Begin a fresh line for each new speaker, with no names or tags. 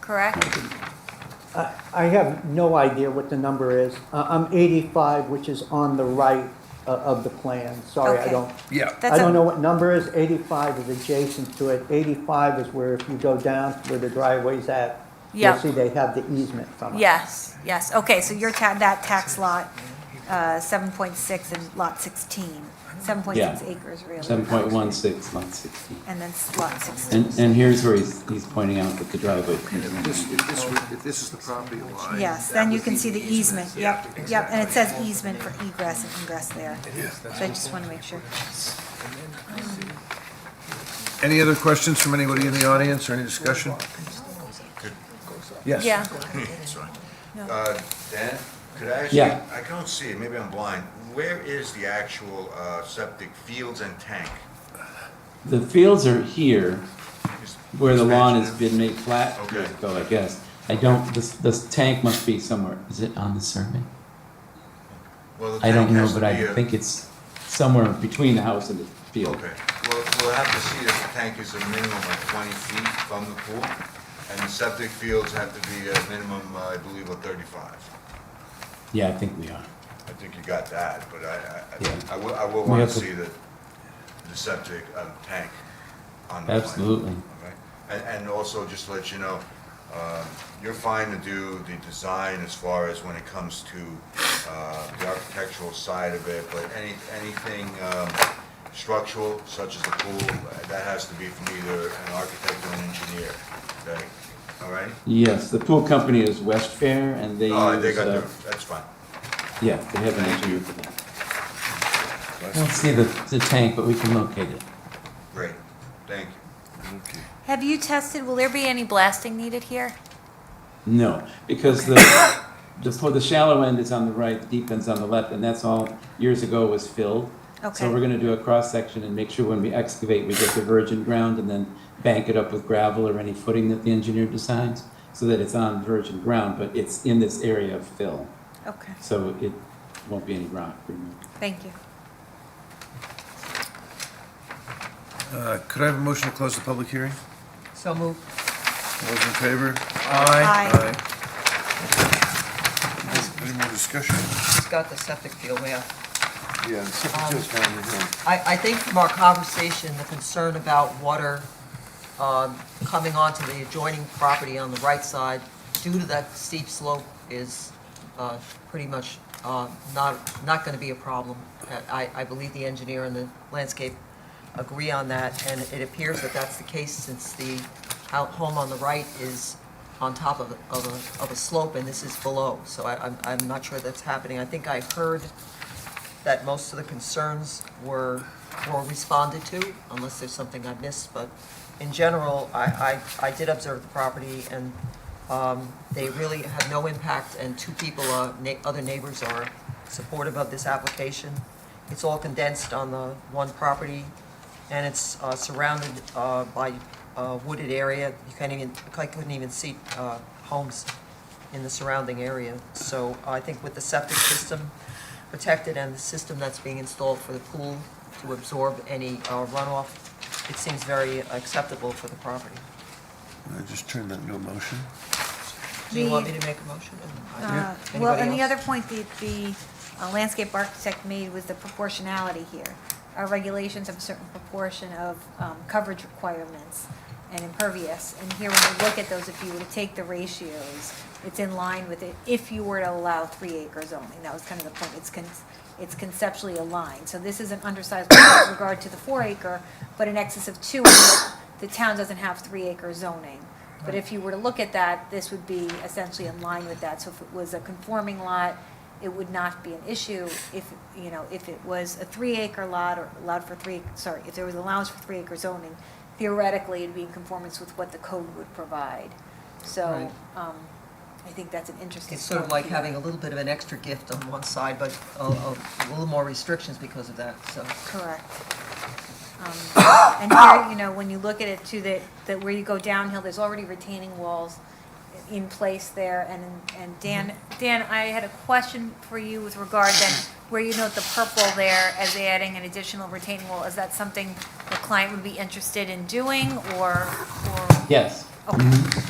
correct?
I I have no idea what the number is. Uh, I'm 85, which is on the right o- of the plan. Sorry, I
Okay.
don't,
Yeah,
I
That's
don't
a-
know what number is. 85 is adjacent to it. 85 is where if you go down to where the driveway's at,
Yeah.
you'll see they have the easement from it.
Yes, yes, okay, so your ta, that tax lot, uh, seven point six and lot sixteen, seven point six
Yeah.
acres really.
Seven point one six, lot sixteen.
And then s- lot sixteen,
And, and here's where he's, he's pointing out that the driveway
If
continues.
this, if this, were- if this is the property line.
yes,
that
then you
would
can
be
see the easement, yep, yep, and it says easement for egress and ingress there. So I just wanna make sure.
Any other questions from anybody in the audience or any discussion? Yes.
Yeah,
Sorry.
No.
Uh, Dan, could I actually,
Yeah.
I can't see it, maybe I'm blind. Where is the actual uh, septic fields and tank?
The fields are here, where the lawn has been made flat years
Okay.
ago, I guess. I don't, this, this tank must be somewhere, is it on the survey?
Well, the
I don't
tank
know,
has
but
to
I
be a-
think it's somewhere between the house and the field.
Okay, well, we'll have to see if the tank is a minimum of 20 feet from the pool, and the septic fields have to be a minimum, uh, I believe, of 35.
Yeah, I think we are.
I think you got that, but I,
Yeah.
I- I will, I will
We
want
have
to
to-
see the, the septic um, tank on the plan.
Absolutely.
Okay. And, and also, just to let you know, um, you're fine to do the design as far as when it comes to uh, the architectural side of it, but any, anything um, structural, such as the pool, uh, that has to be from either an architect or an engineer, okay? All right?
Yes, the pool company is West Fair, and they
Oh, they
use,
got
uh,
their, that's fine.
yeah, they have an engineer for that. I don't see the, the tank, but we can locate it.
Great, thank you.
have you tested, will there be any blasting needed here?
No, because the, the, for the shallow end is on the right, the deep end's on the left, and that's all years ago was filled.
Okay.
So we're gonna do a cross-section and make sure when we excavate, we get the virgin ground and then bank it up with gravel or any footing that the engineer designs, so that it's on virgin ground, but it's in this area of fill,
Okay,
so it won't be any rock removed.
thank you.
Uh, Could I have a motion to close the public hearing?
So move.
All Those in favor?
Aye.
Aye. Any more discussion?
It's got the septic field, yeah.
Yeah, the septic field's down here.
I, I think from our conversation, the concern about water um, coming onto the adjoining property on the right side due to that steep slope is uh, pretty much uh, not, not going to be a problem. I, I believe the engineer and the landscape agree on that, and it appears that that's the case since the hou- home on the right is on top of, a- of a, of a slope and this is below. So I, I'm, I'm not sure that's happening. I think I heard that most of the concerns were, were responded to, unless there's something I missed, but in general, I, I, I did observe the property, and, um, they really have no impact, and two people, uh, na- other neighbors are supportive of this application. It's all condensed on the one property, and it's, uh, surrounded, uh, by, uh, wooded area, you can't even, I couldn't even see, uh, homes in the surrounding area. So I think with the septic system protected and the system that's being installed for the pool to absorb any uh, runoff, it seems very acceptable for the property.
I just turned that into a motion.
Do you want me
The-
to make a motion? I don't-
Uh, Well,
Anybody
and the
else?
other point that the uh, landscape architect made was the proportionality here. Our regulations have a certain proportion of um, coverage requirements and impervious. And here, when you look at those, if you were to take the ratios, it's in line with it, if you were to allow three acres only. That was kind of the point, it's, con- it's conceptually aligned. So this is an undersized lot with regard to the four acre, but in excess of two, the town doesn't have three acre zoning. But if you were to look at that, this would be essentially in line with that. So if it was a conforming lot, it would not be an issue. If, you know, if it was a three-acre lot or allowed for three, sorry, if there was allowance for three-acre zoning, theoretically, it'd be in conformance with what the code would provide. So
Right.
um, I think that's an interesting.
It's sort of
point
like
here.
having a little bit of an extra gift on one side, but a, a little more restrictions because of that, so.
Correct. Um, And here, you know, when you look at it too, that, that where you go downhill, there's already retaining walls in place there, and, and Dan, Dan, I had a question for you with regard then, where you note the purple there as adding an additional retaining wall, is that something the client would be interested in doing, or, or?
Yes.
Okay,